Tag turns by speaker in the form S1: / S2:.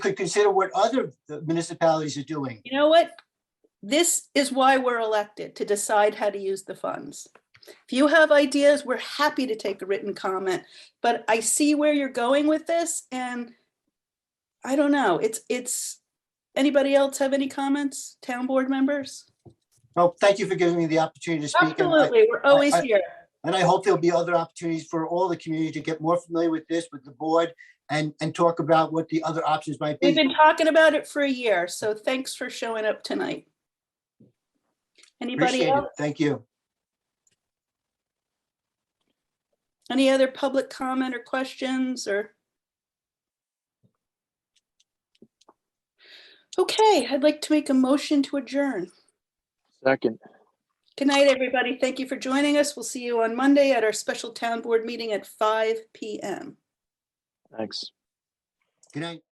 S1: could consider what other municipalities are doing.
S2: You know what? This is why we're elected, to decide how to use the funds. If you have ideas, we're happy to take a written comment, but I see where you're going with this and I don't know, it's, it's, anybody else have any comments? Town board members?
S1: Well, thank you for giving me the opportunity to speak. and I-
S2: Absolutely, we're always
S1: I-
S2: here.
S1: And I hope there'll be other opportunities for all the community to get more familiar with this, with the board, and, and talk about what the other options might
S2: We've
S1: be.
S2: been talking about it for a year, so thanks for showing up tonight. Anybody
S1: Appreciate
S2: else?
S1: it. Thank you.
S2: Any other public comment or questions or? Okay, I'd like to make a motion to adjourn.
S3: Second,
S2: Good night, everybody. Thank you for joining us. We'll see you on Monday at our special town board meeting at five PM.
S3: thanks.
S1: Good night.